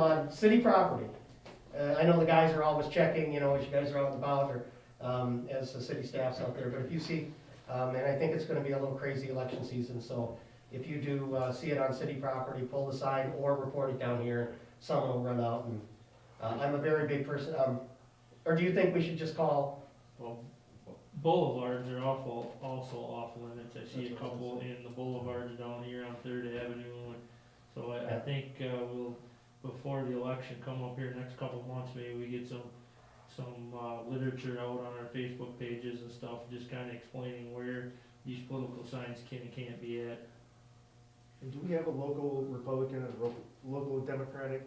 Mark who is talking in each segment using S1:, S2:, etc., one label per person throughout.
S1: on city property. Uh, I know the guys are always checking, you know, as you guys are out and about, or, um, as the city staff's out there, but if you see, um, and I think it's gonna be a little crazy election season, so if you do, uh, see it on city property, pull the sign or report it down here, someone will run out and, uh, I'm a very big person, um, or do you think we should just call,
S2: Well, boulevards are awful, also off limits, I see a
S1: That's what I was
S2: couple in the boulevards down here on Third Avenue, and so I, I
S1: Yeah.
S2: think, uh, we'll, before the election, come up here next couple of months, maybe we get some, some, uh, literature out on our Facebook pages and stuff, just kinda explaining where these political signs can and can't be at.
S3: And do we have a local Republican and ro- local Democratic?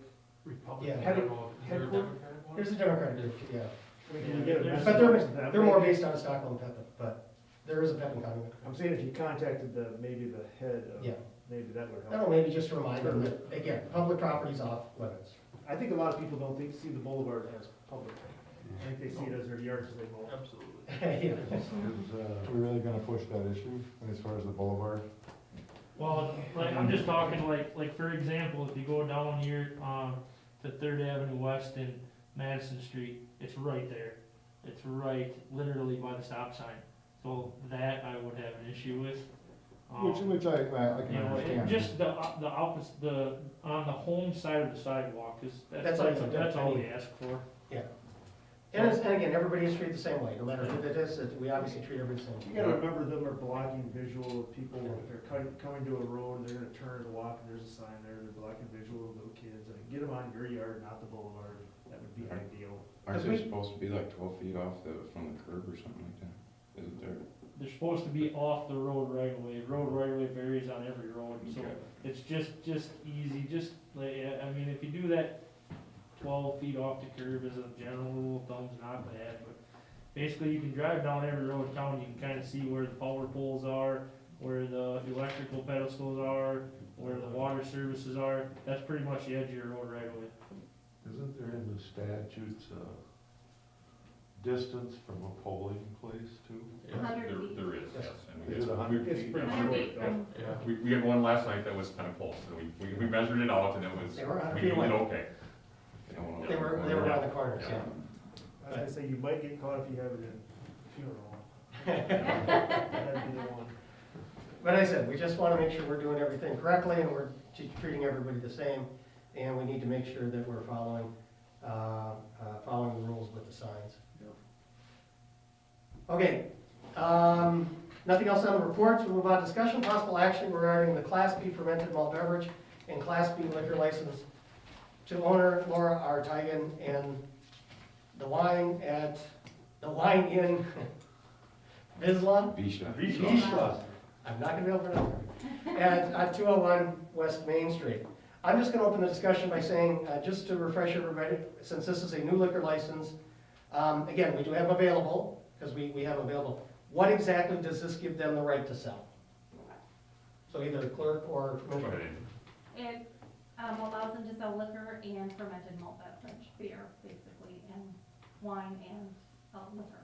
S4: Republican,
S1: Yeah.
S4: I don't know, is there a
S3: Headquarter-
S4: Democratic one?
S1: here's the Democratic group, yeah.
S3: I mean, can
S2: Yeah,
S3: we get a
S2: there's-
S3: message
S1: But they're,
S3: to them?
S1: they're more based out of Stockholm, Pepin, but there is a Pepin County.
S3: I'm saying if you contacted the, maybe the head of,
S1: Yeah.
S3: maybe that would
S1: I
S3: help.
S1: don't know, maybe just a reminder that, again, public property's off limits.
S3: I think a lot of people don't think, see the boulevard as public. I think they see it as their yards as they mow.
S4: Absolutely.
S1: Yeah.
S5: Is, uh, we really gonna push that issue as far as the boulevard?
S2: Well, like, I'm just talking like, like for example, if you go down here, um, to Third Avenue West and Madison Street, it's right there. It's right literally by the stop sign, so that I would have an issue with. Um,
S5: Which, which I, I I
S2: You
S5: can
S2: know, and
S5: understand.
S2: just the, op- the opposite, the, on the home side of the sidewalk, is, that's,
S1: That's all you-
S2: that's all we ask for.
S1: And it's, and again, everybody is treated the same way, no matter who that is, it- we obviously treat everybody the
S3: You
S1: same.
S3: gotta remember them are blocking visual of people, if they're cutting, coming to a road, they're gonna turn and walk, and there's a sign there, they're blocking visual of little kids. I mean, Get them on your yard, not the boulevard, that would be ideal.
S6: Aren't
S1: Because
S6: they supposed to be like twelve feet off the, from the curb or something like that? Isn't there?
S2: They're supposed to be off the road right away, road right away varies on every road, so.
S6: Okay.
S2: It's just, just easy, just, like, I I mean, if you do that twelve feet off the curb as a general rule of thumb's not bad, but basically you can drive down every road in town, you can kinda see where the power poles are, where the electrical pedestals are, where the water services are, that's pretty much the edge of your road right away.
S7: Isn't there in the statutes, uh, distance from a polling place too?
S4: Yeah,
S8: hundred
S4: there-
S8: feet.
S4: There is, yes. and we
S7: Is it
S4: get-
S7: a hundred
S3: It's
S7: feet?
S3: pretty
S8: I
S3: short,
S8: agree.
S3: though.
S4: Yeah, we, we had one last night that was kind of close, and we, we- we measured it out, and it was,
S1: They were on a
S4: we
S1: few
S4: did
S1: away.
S4: okay.
S6: They don't wanna-
S1: They were, they were around the corners, yeah.
S3: I was gonna say, you might get caught if you have it in funeral. That'd be the one.
S1: But I said, we just wanna make sure we're doing everything correctly and we're t- treating everybody the same. And we need to make sure that we're following, uh, uh, following the rules with the signs. Okay, um, nothing else on the reports, we move on to discussion, possible action regarding the Class B fermented malt beverage and Class B liquor license to owner Laura R. Tigan and the wine at, the wine in Bislan.
S6: Bisha.
S1: I'm not gonna be able to pronounce it. At, at two oh one West Main Street. I'm just gonna open the discussion by saying, uh, just to refresh everybody, since this is a new liquor license, um, again, we do have available, because we, we have available, what exactly does this give them the right to sell? So either clerk or
S4: Go ahead,
S1: commissioner.
S4: Andy.
S8: It um, allows them to sell liquor and fermented malt beverage, beer, basically, and wine and uh, liquor,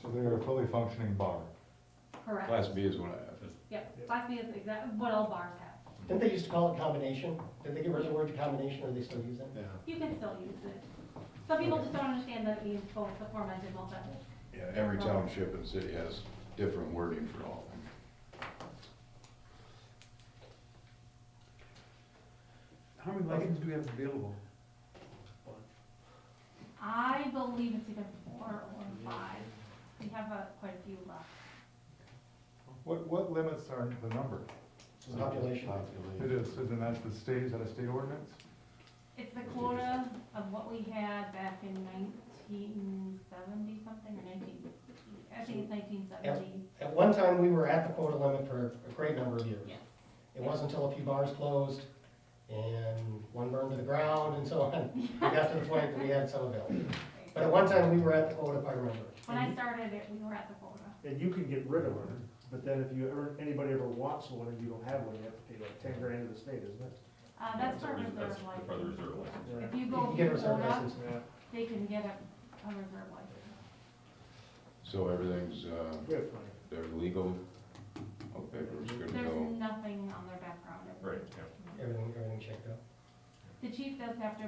S5: So they're a fully functioning bar.
S8: correct?
S6: Class B is what I have.
S8: Yeah, Class B is exactly what all bars have.
S1: Didn't they used to call it combination? Did they get rid of the word combination, or they still use it?
S8: You can still use it. Some people just don't understand that it means both the fermented malt beverage.
S6: Yeah, every township and city has different wording for all of them.
S4: How many licenses do we have available?
S8: I believe it's either four or five. We have uh, quite a few left.
S5: What, what limits are the number?
S1: Population.
S5: It is, so then that's the state, is that a state ordinance?
S8: It's the quota of what we had back in nineteen seventy something, or nineteen, I think it's nineteen seventy.
S1: At one time, we were at the quota limit for a great number of years.
S8: Yes.
S1: It wasn't until a few bars closed and one burned to the ground and so on, we got to the point that we had some available. But at one time, we were at the quota, if I remember.
S8: When I started it, we were at the quota.
S3: And you can get rid of them, but then if you ever, anybody ever wants one and you don't have one, you have to pay like ten grand to the state, isn't it?
S8: Uh, that's for
S4: That's-
S8: reserve
S4: that's For the
S8: license.
S4: reserve license.
S8: If you
S1: You
S8: go
S1: can get a reserve
S8: quota,
S1: license.
S3: Yeah.
S8: they can get a, a reserve license.
S6: So everything's, uh,
S3: We have plenty.
S6: they're legal. All the papers good to
S8: There's
S6: go.
S8: nothing on their background.
S4: Right, yeah.
S1: Everything, everything checked out.
S8: the chief does have to